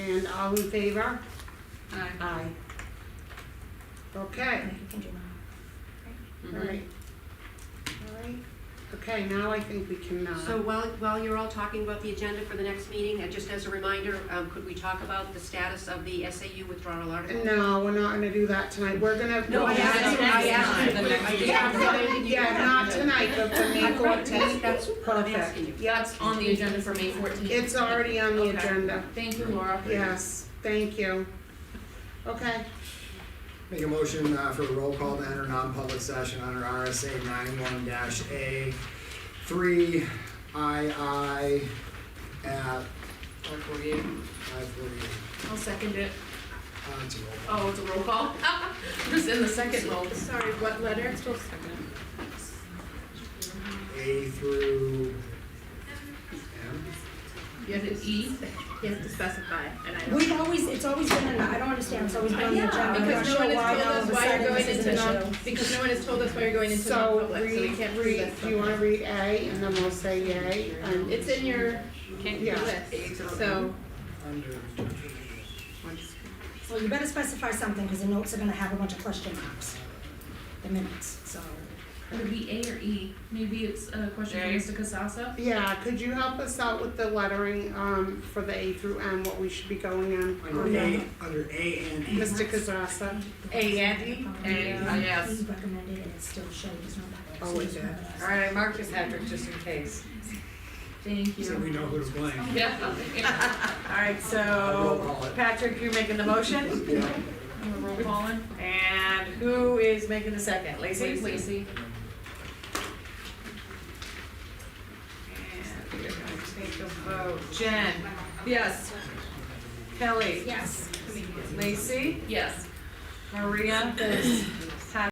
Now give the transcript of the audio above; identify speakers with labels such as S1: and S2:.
S1: and all in favor?
S2: Aye.
S1: Aye. Okay,
S3: You can do mine.
S4: Mm-hmm.
S1: all right. All right, okay, now I think we can, uh.
S4: So while, while you're all talking about the agenda for the next meeting, and just as a reminder, um, could we talk about the status of the SAU withdrawal article?
S1: No, we're not gonna do that tonight, we're gonna.
S4: No, I asked, you- I asked.
S2: The
S4: you.
S2: next
S4: I just-
S2: meeting.
S1: Yeah, not tonight, but for May
S4: I'm right,
S1: fourteenth,
S4: That's what I'm asking you.
S1: perfect, yep,
S2: It's on the agenda for May fourteenth.
S1: it's already on the
S2: Okay.
S1: agenda,
S2: Thank you, Laura.
S1: yes, thank you. Okay,
S5: Make a motion uh, for a roll call to enter non-public session under RSA ninety-one dash A three I I at oh,
S2: Four forty-eight.
S5: five forty-eight.
S2: I'll second it.
S5: Uh, it's a roll call.
S2: Oh, it's a roll call? Who's in the second roll?
S3: Sorry, what letter?
S5: A through M?
S2: You have an E?
S3: We've always, it's always been, an- I don't understand, it's always been on the agenda. I'm not
S6: Because no
S3: sure
S6: one
S3: why
S6: has told
S3: all of
S6: us
S3: a
S6: why
S3: sudden
S6: you're going
S3: this is
S6: into
S3: an
S6: non,
S3: issue.
S6: because no one has told us why you're going into
S1: so
S6: non-public, so we
S1: read,
S6: can't prove
S1: read,
S6: that.
S1: do you wanna read A and then we'll say yay, and
S6: It's in your
S2: Can't
S1: Yeah.
S6: list, so.
S5: Under.
S3: So you better specify something, because the notes are gonna have a bunch of question marks, the minutes, so.
S7: Would it be A or E? Maybe it's a question
S2: A.
S7: for Mr. Casassa?
S1: Yeah, could you help us out with the lettering, um, for the A through M, what we should be going in?
S5: Under A, under A and E.
S1: Mr. Kazasa,
S2: A and E?
S3: um,
S2: A, yes.
S3: We recommended it, it's still showed, it's not that.
S1: Oh, it did.
S8: Alright, I marked this Patrick just in case.
S7: Thank
S5: So we
S7: you.
S5: know who to blame.
S2: Yeah.
S8: Alright,
S5: I'll roll
S8: so
S5: call it.
S8: Patrick, you're making the motion
S5: Yeah.
S7: Roll calling.
S8: and who is making the second? Lacey?
S7: Lacey.
S8: And we're gonna take a vote. Jen?
S2: Yes.
S8: Kelly?
S3: Yes.
S8: Lacey?
S7: Yes.
S8: Maria?